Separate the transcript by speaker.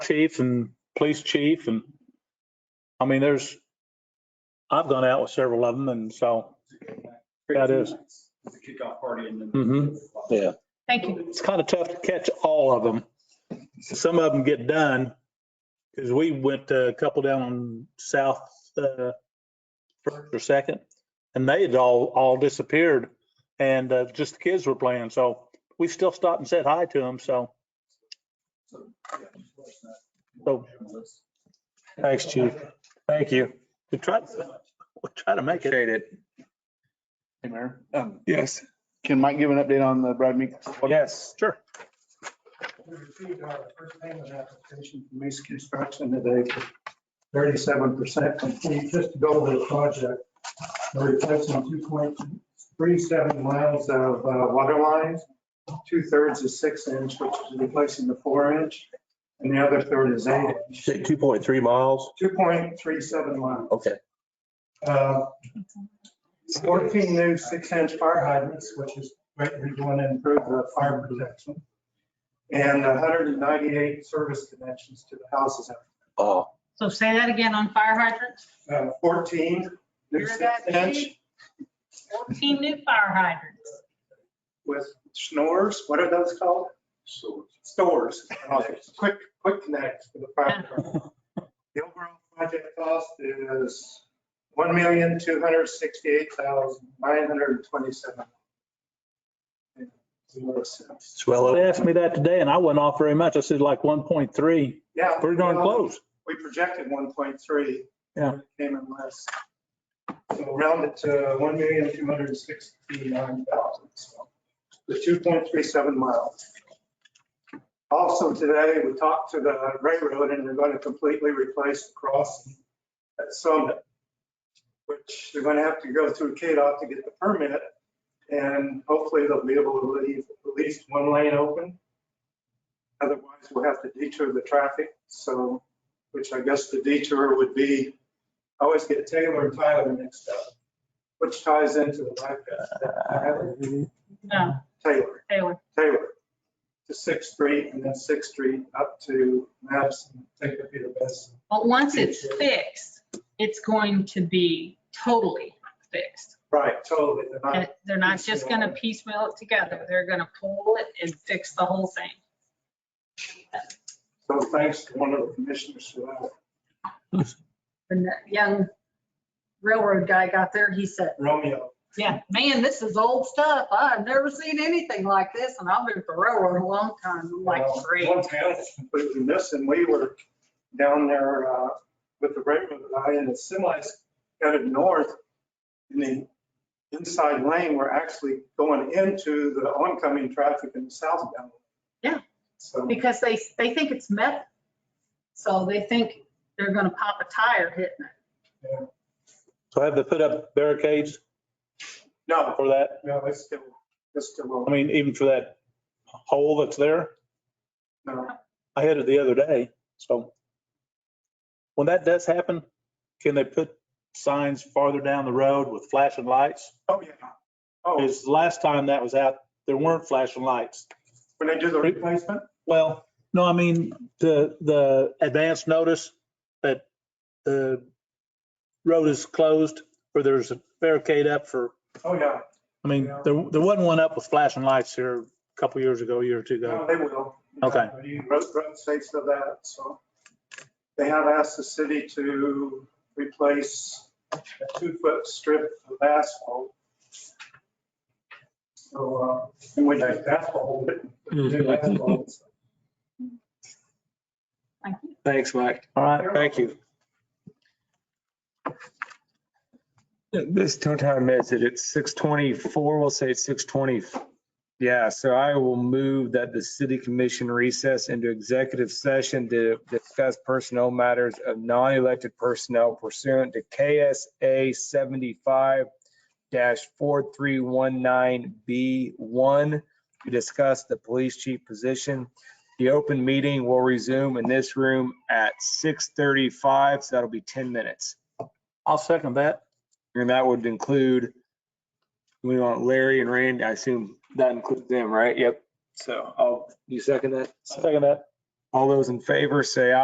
Speaker 1: chief and police chief and, I mean, there's, I've gone out with several of them and so, Yeah, it is.
Speaker 2: It's a kickoff party and then.
Speaker 1: mhm.
Speaker 3: Yeah,
Speaker 4: Thank you.
Speaker 1: It's kind of tough to catch all of them. Some of them get done, because we went to a couple down on South, uh, first or second, and they had all, all disappeared. And, uh, just the kids were playing, so we still stopped and said hi to them, so,
Speaker 2: So, yeah, just let us
Speaker 1: so,
Speaker 2: know.
Speaker 1: thanks, chief.
Speaker 3: thank you.
Speaker 1: We tried, we tried to make it.
Speaker 3: Appreciate it.
Speaker 5: Hey, Mayor. Um,
Speaker 3: Yes.
Speaker 5: Can Mike give an update on the Brad Meeks?
Speaker 3: Yes.
Speaker 1: Sure.
Speaker 6: We received our first payment application from East Construction today for thirty-seven percent complete, just to go over the project. We're replacing two point three seven miles of uh, water lines. Two-thirds is six inch, which is replacing the four inch, and the other third is eight.
Speaker 3: Say two point three miles.
Speaker 6: Two point three seven miles.
Speaker 3: Okay.
Speaker 6: Uh, Fourteen new six-inch fire hydrants, which is greatly going to improve the fire protection. And hundred and ninety-eight service connections to the houses.
Speaker 3: Oh,
Speaker 4: So say that again on fire hydrants.
Speaker 6: Uh, Fourteen new
Speaker 4: Hear that, Chief?
Speaker 6: six-inch
Speaker 4: 14 new fire hydrants.
Speaker 6: with snores, what are those called? Stores. Quick, quick connects for the fire department. The overall project cost is one million, two hundred sixty-eight thousand, nine hundred twenty-seven.
Speaker 3: it's well
Speaker 1: They
Speaker 3: over.
Speaker 1: asked me that today and I went off very much. I said like 1.3, pretty
Speaker 6: Yeah.
Speaker 1: darn close.
Speaker 6: We projected one point three.
Speaker 1: Yeah.
Speaker 6: Came in less. So round it to one million, two hundred and sixty-nine thousand, so the two point three seven miles. Also today, we talked to the railroad and they're going to completely replace the crossing at Summit, which they're going to have to go through KDOT to get the permit. And hopefully they'll be able to leave at least one lane open. Otherwise, we'll have to detour the traffic, so which I guess the detour would be, I always get Taylor and Tyler mixed up, which ties into the bypass.
Speaker 4: No,
Speaker 6: Taylor,
Speaker 4: Taylor.
Speaker 6: Taylor, to Sixth Street and then Sixth Street up to Madison, take the Peter Best.
Speaker 4: But once it's fixed, it's going to be totally fixed.
Speaker 6: Right, totally. They're
Speaker 4: And
Speaker 6: not-
Speaker 4: They're not just going to piecemeal it together. They're going to pull it and fix the whole thing.
Speaker 6: So thanks to one of the commissioners for that.
Speaker 4: When that young railroad guy got there, he said,
Speaker 6: Romeo,
Speaker 4: yeah, man, this is old stuff. I've never seen anything like this and I've been at the railroad a long time. I'm like,
Speaker 6: well,
Speaker 4: great.
Speaker 6: one town is completely missing. We were down there uh, with the railroad guy and the semis headed north. And the inside lane were actually going into the oncoming traffic in the southbound.
Speaker 4: Yeah.
Speaker 6: So,
Speaker 4: Because they, they think it's metal. So they think they're gonna pop a tire hitting it.
Speaker 1: So have they put up barricades
Speaker 6: no,
Speaker 1: for that?
Speaker 6: no, it's still, it's still,
Speaker 1: I mean, even for that hole that's there?
Speaker 6: no.
Speaker 1: I had it the other day, so. When that does happen, can they put signs farther down the road with flashing lights?
Speaker 6: Oh, yeah. Oh,
Speaker 1: Because last time that was out, there weren't flashing lights.
Speaker 6: when they do the replacement?
Speaker 1: Well, no, I mean, the, the advance notice that the road is closed or there's a barricade up for,
Speaker 6: Oh, yeah.
Speaker 1: I mean, there, there wasn't one up with flashing lights here a couple years ago, a year or two
Speaker 6: No,
Speaker 1: ago.
Speaker 6: they will.
Speaker 1: Okay.
Speaker 6: You Road, road states of that, so. They have asked the city to replace a two-foot strip of asphalt. So, uh, and we take asphalt, but new
Speaker 1: Mm-hmm.
Speaker 6: asphalt.
Speaker 4: Like,
Speaker 3: Thanks, Mike.
Speaker 1: All right, thank you.
Speaker 3: This tow time is it, it's six twenty-four, we'll say it's six twenty. Yeah, so I will move that the city commission recess into executive session to discuss personnel matters of non-elected personnel pursuant to KSA seventy-five four three one nine B one to discuss the police chief position. The open meeting will resume in this room at six thirty-five, so that'll be ten minutes.
Speaker 1: I'll second that.
Speaker 3: And that would include, we want Larry and Randy, I assume that includes them, right? Yep. So, I'll you second that?
Speaker 1: Second that.
Speaker 3: All those in favor, say aye.